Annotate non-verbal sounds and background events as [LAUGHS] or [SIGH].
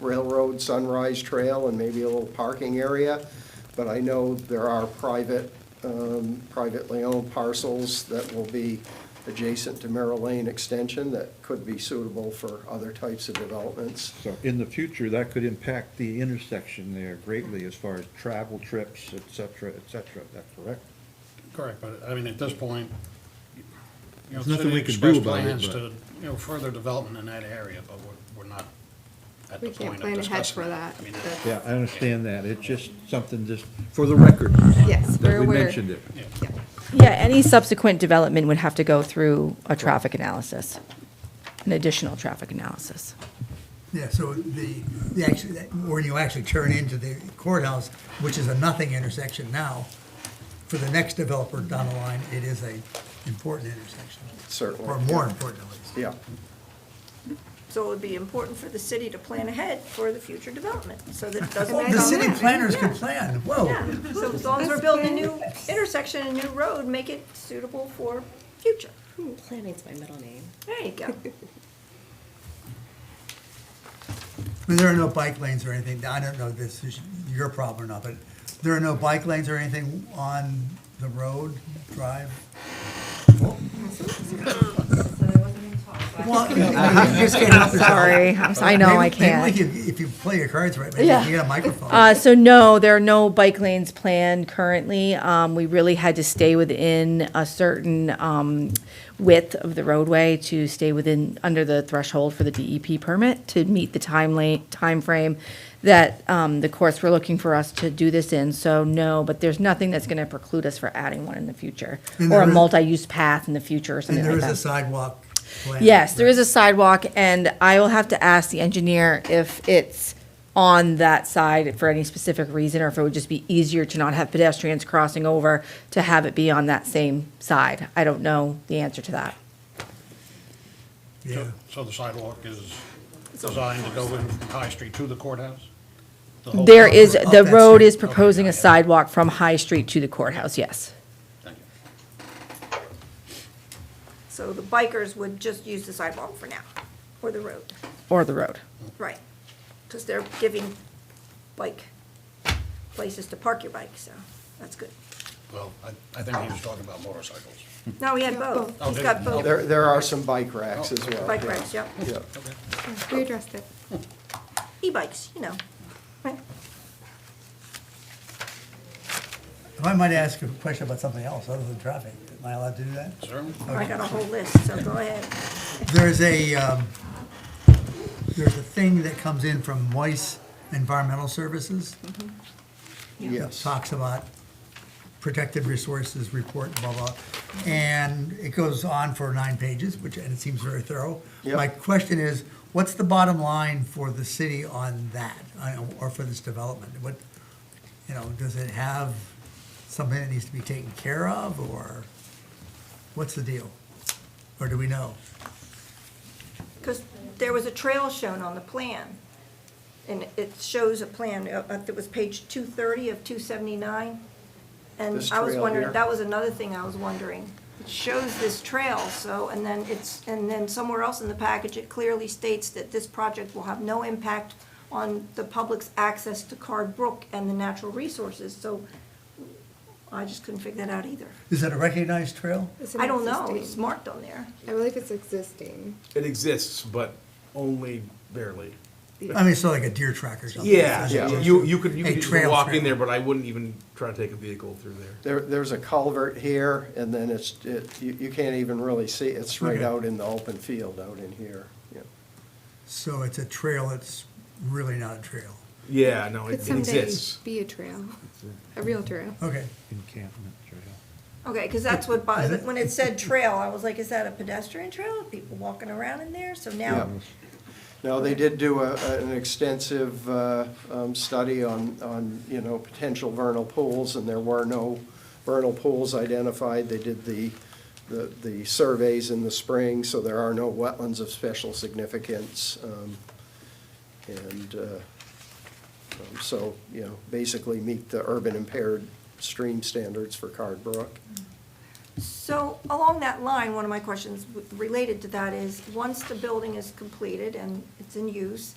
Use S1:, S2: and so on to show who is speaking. S1: Railroad Sunrise Trail and maybe a little parking area. But I know there are private, um, privately owned parcels that will be adjacent to Merrill Lane Extension that could be suitable for other types of developments.
S2: So in the future, that could impact the intersection there greatly as far as travel trips, et cetera, et cetera. Is that correct?
S3: Correct, but I mean, at this point, you know,
S2: There's nothing
S3: city
S2: we can do
S3: expressed
S2: about it,
S3: plans
S2: but-
S3: to, you know, further development in that area, but we're, we're not at the
S4: We
S3: point of discussing.
S4: can't plan ahead for that.
S3: I mean,
S4: That's-
S2: Yeah, I understand that. It's just something just for the record.
S4: Yes,
S2: That
S4: we're
S2: we
S4: aware.
S2: mentioned it.
S3: yeah.
S4: Yeah.
S5: Yeah, any subsequent development would have to go through a traffic analysis, an additional traffic analysis.
S6: Yeah, so the, the actually, where you actually turn into the courthouse, which is a nothing intersection now, for the next developer down the line, it is a important intersection.
S1: Certainly,
S6: Or more important at least.
S1: Yeah,
S7: So it would be important for the city to plan ahead for the future development, so that it doesn't.
S4: Well,
S6: The
S4: Nice.
S6: city planners could
S7: Yeah.
S6: plan, whoa.
S7: Yeah, so as long as we're building a new intersection, a new road, make it suitable for future.
S8: Planning's my middle name.
S7: There you go.
S6: I mean, there are no bike lanes or anything, I don't know if this is your problem or not, but there are no bike lanes or anything on the road, drive?
S7: [LAUGHS]
S6: Well, [LAUGHS] you just can't help yourself.
S5: Sorry, I'm s- I know I
S6: [LAUGHS] Maybe- maybe
S5: can't.
S6: we could- If you play your cards right, maybe
S5: Yeah.
S6: you get a microphone.
S5: Uh, so no, there are no bike lanes planned currently. Um, we really had to stay within a certain, um, width of the roadway to stay within, under the threshold for the DEP permit to meet the time late, timeframe that, um, the courts were looking for us to do this in. So no, but there's nothing that's gonna preclude us for adding one in the future
S6: And
S5: or a
S6: there is-
S5: multi-use path in the future or
S6: And
S5: something
S6: there
S5: like
S6: is a
S5: that.
S6: sidewalk plan.
S5: Yes, there is a sidewalk and I will have to ask the engineer if it's on that side for any specific reason or if it would just be easier to not have pedestrians crossing over to have it be on that same side. I don't know the answer to that.
S6: Yeah.
S3: So- So the sidewalk is designed to go in from High Street to the courthouse? The whole
S5: There
S3: road?
S5: is,
S6: up
S5: the
S6: that
S5: road
S6: street.
S5: is
S6: Okay,
S5: proposing
S3: got
S5: a
S3: it.
S5: sidewalk from High Street to the courthouse, yes.
S3: Thank you.
S7: So the bikers would just use the sidewalk for now, or the road,
S5: Or the road.
S7: right? Because they're giving bike places to park your bike, so that's good.
S3: Well, I, I think he was talking about motorcycles.
S7: No, we had both.
S3: Oh,
S7: He's
S3: did-
S7: got both
S1: there, there are some bike racks as well.
S7: bike
S1: yeah.
S7: racks, yep.
S1: Yeah,
S4: We addressed it.
S7: E-bikes, you know, right?
S6: If I might ask a question about something else other than traffic, am I allowed to do that?
S3: Sir?
S7: I got a whole list, so go ahead.
S6: There's a, um, there's a thing that comes in from Moise Environmental Services. that
S1: yes.
S6: Talks about protected resources report, blah, blah. And it goes on for nine pages, which, and it seems very thorough.
S1: Yep.
S6: My question is, what's the bottom line for the city on that, on- or for this development? What, you know, does it have something that needs to be taken care of, or what's the deal? Or do we know?
S7: Because there was a trail shown on the plan, and it shows a plan, uh, uh, that was page 230 of 279. And
S1: This
S7: I
S1: trail
S7: was
S1: here.
S7: wondering, that was another thing I was wondering. It shows this trail, so, and then it's, and then somewhere else in the package, it clearly states that this project will have no impact on the public's access to Card Brook and the natural resources, so I just couldn't figure that out either.
S6: Is it a recognized trail?
S4: It's an
S7: I don't know, it's
S4: existing-
S7: marked on there.
S4: I believe it's existing.
S9: It exists, but only barely.
S6: I mean, so like a deer track or something.
S9: Yeah,
S6: Is it just
S9: you, you could, you
S6: a
S9: could just
S6: trail
S9: walk
S6: trail?
S9: in there, but I wouldn't even try to take a vehicle through there.
S1: There, there's a culvert here, and then it's, it, you, you can't even really see, it. it's right
S6: Okay.
S1: out in the open field out in here, yeah.
S6: So it's a trail that's really not a trail.
S9: Yeah,
S3: Oh,
S9: no,
S4: Could
S9: it
S4: someday
S9: exists.
S4: be a trail, a real trail.
S6: Okay.
S2: Encampment trail.
S7: Okay, because that's what, bo- when it said trail, I was like, is that a pedestrian trail? People walking around in there? So now,
S1: No, they did do a, a- an extensive, uh, um, study on, on, you know, potential vernal pools, and there were no vernal pools identified. They did the, the, the surveys in the spring, so there are no wetlands of special significance. um, And, uh, um, so, you know, basically meet the urban impaired stream standards for Card Brook.
S7: so along that line, one of my questions w- related to that is, once the building is completed and it's in use,